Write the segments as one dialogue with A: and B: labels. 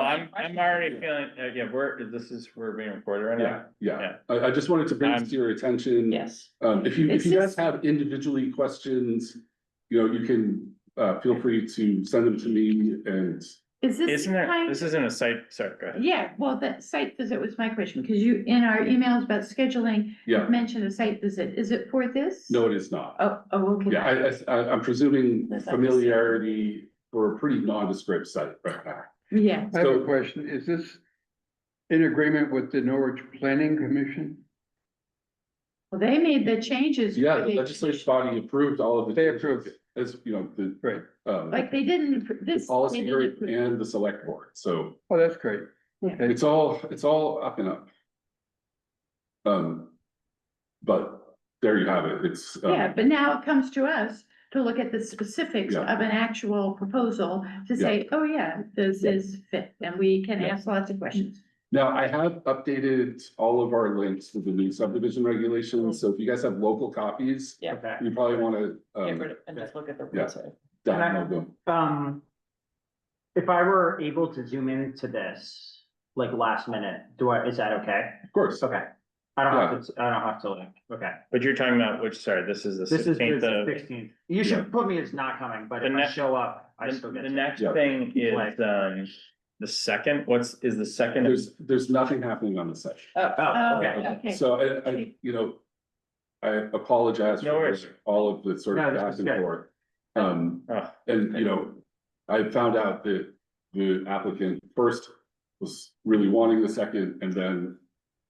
A: I'm, I'm already feeling, uh, yeah, we're, this is, we're being recorded right
B: Yeah,
A: now.
B: yeah. I, I just wanted to bring this to your attention.
C: Yes.
B: Um, if you, if
C: It's
B: you guys
C: just-
B: have individually questions, you know, you can, uh, feel free to send them to me and
C: Is this
A: Isn't there,
C: kind,
A: this isn't a site, sorry, go ahead.
C: yeah, well, that site visit was my question, because you, in our emails about scheduling,
B: yeah,
C: mentioned a site visit. Is it for this?
B: no, it is not.
C: Oh, oh, okay.
B: Yeah, I, I, I'm presuming
C: That's obvious.
B: familiarity for a pretty nondescript site right now.
C: Yeah.
D: I have
B: So-
D: a question. Is this in agreement with the Norwich Planning Commission?
C: Well, they made the changes.
B: Yeah,
C: where
B: the
C: they-
B: legislative body approved all of the.
D: They approved it.
B: As, you know, the.
D: Right.
B: Um,
C: Like, they didn't, appro-
B: the
C: this.
B: policy
C: they
B: group
C: didn't appro-
B: and the select board, so
D: Oh, that's great.
B: it's all, it's all up and up. Um, but there you have it, it's. um,
C: Yeah, but now it comes to us to look at the specifics
B: Yeah.
C: of an actual proposal to
B: Yeah.
C: say, oh, yeah, this is fit, and we can
B: Yeah.
C: ask lots of questions.
B: Now, I have updated all of our links to the new subdivision regulations, so if you guys have local copies,
E: Yeah.
F: Okay.
B: you probably wanna,
E: Get
B: um,
E: rid of, and just look at the
B: Yeah.
E: rules, right?
B: download them.
F: Um, if I were able to zoom into this, like last minute, do I, is that okay?
B: Of course,
F: Okay. I don't have to, I don't have to link, okay.
A: But you're talking about which, sorry, this is the
F: This is
A: sixteenth
F: the
A: of,
F: sixteenth. You should put me as not coming, but
A: The
F: if I
A: next-
F: show up, I
A: the
F: still get
A: the
F: to-
A: next
B: Yeah.
A: thing
F: Like-
A: is, um, the second, what's, is the second?
B: there's, there's nothing happening on the session.
F: Oh, okay.
C: Oh, okay.
B: So I, I, you know, I apologize
A: No
B: for
A: worries.
B: all of the sort
F: No,
B: of
F: this
B: back
F: is
B: and
F: good.
B: forth. Um,
A: Oh,
B: and you know, I found out that the applicant first was really wanting the second and then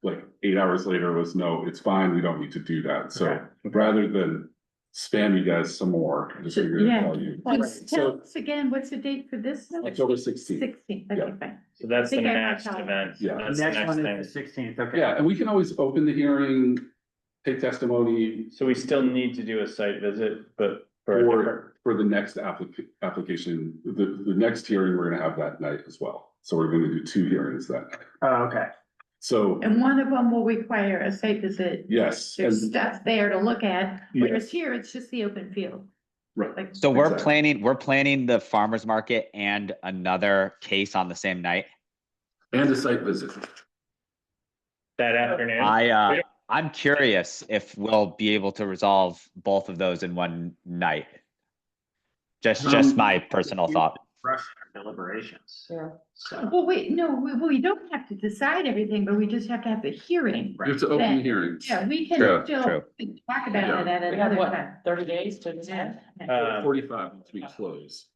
B: like eight hours later was, no, it's fine, we don't need to do that. So
F: Okay.
B: rather than spam you guys some more, I just
C: So-
B: figured
C: yeah.
B: I'd tell you.
C: Let's
B: So-
C: Tell us again, what's the date for this?
B: October sixteenth.
C: Sixteenth, okay,
B: Yeah.
C: fine.
A: so that's the
C: Think I have
A: next
C: time.
A: event.
B: Yeah.
A: That's the
F: Next
A: next
F: one is the
A: thing.
F: sixteenth, okay.
B: Yeah, and we can always open the hearing, take testimony,
A: So we still need to do a site visit, but for. a different-
B: Or for the next applica- application, the, the next hearing we're gonna have that night as well. So we're gonna do two hearings that night.
F: Oh, okay.
B: So,
C: And one of them will require a site visit.
B: yes,
C: There's
B: and
C: stuff there to look at,
B: Yeah.
C: whereas here, it's just the open field.
B: Right.
C: Like,
G: So we're
B: Exactly.
G: planning, we're planning the farmer's market and another case on the same night.
B: and a site visit.
A: That afternoon.
G: I, uh, I'm curious if we'll be able to resolve both of those in one night. Just, just
B: Um,
G: my personal thought.
F: Rush our deliberations.
E: Yeah.
F: So,
C: well, wait, no, we, we don't have to decide everything, but we just have to have the hearing.
B: You have to open the hearings.
C: Yeah, we can
G: True,
C: still
G: true.
C: talk about it at
E: We have
C: another
E: what,
C: time.
E: thirty days to
C: Yeah.
E: decide?
B: Uh,
A: Um,
B: Forty-five to be closed.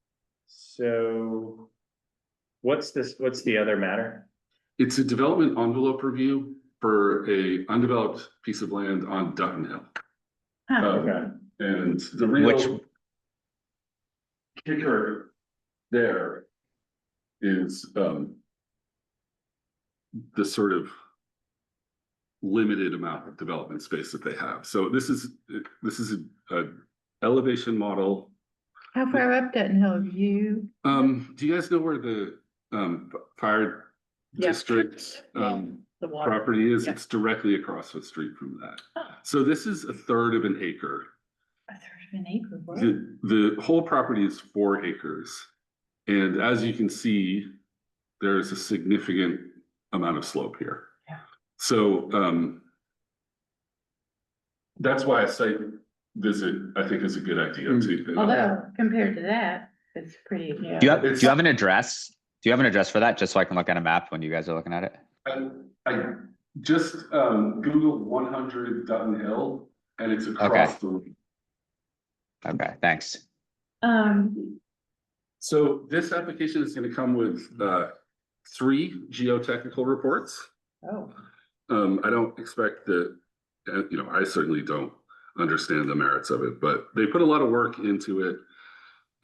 A: So what's this, what's the other matter?
B: It's a development envelope review for a undeveloped piece of land on Dutton Hill.
C: Huh.
B: Um,
A: Okay.
B: And the
G: Which-
B: real kicker there is um the sort of limited amount of development space that they have. So this is, this is a a elevation model.
C: How far up Dutton Hill, you?
B: Um, do you guys know where the um fire
E: Yeah.
B: district um
E: The water.
B: property is?
E: Yeah. Ah.
B: It's directly across the street from that.
C: Oh.
B: So this is a third of an acre.
C: A third of an acre, wow.
B: The, the whole property is four acres. And as you can see, there is a significant amount of slope here.
E: Yeah.
B: So, um, that's why a site visit, I think, is a good idea too.
C: Although, compared to that, it's pretty, yeah.
G: Do you have, do
B: It's-
G: you have an address? Do you have an address for that? Just so I can look at a map when you guys are looking at it?
B: I, I just, um, Googled one hundred Dutton Hill and it's across the Mm-hmm.
G: Okay, thanks.
C: Um,
B: So this application is gonna come with, uh, three geotechnical reports.
C: oh,
B: Um, I don't expect that, uh, you know, I certainly don't understand the merits of it, but they put a lot of work into it.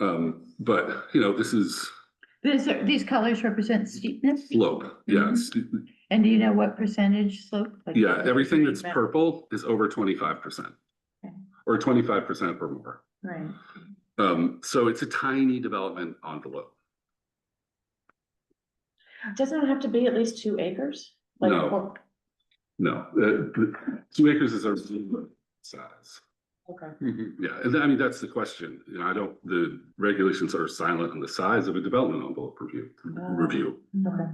B: Um, but, you know, this is
C: these are, these colors represent steepness,
B: slope, yes,
C: and do you know what percentage slope? Like-
B: yeah, everything that's
C: Right.
B: purple is over twenty-five percent.
C: Okay.
B: Or twenty-five percent or more,
C: Right.
B: um, so it's a tiny development envelope,
E: Doesn't it have to be at least two acres? Like,
B: No.
E: or-
B: no, uh, two acres is our size.
E: Okay.
D: Mhm.
B: Yeah, and I mean, that's the question. You know, I don't, the regulations are silent on the size of a development envelope review,
E: Ah.
B: review.
E: Okay.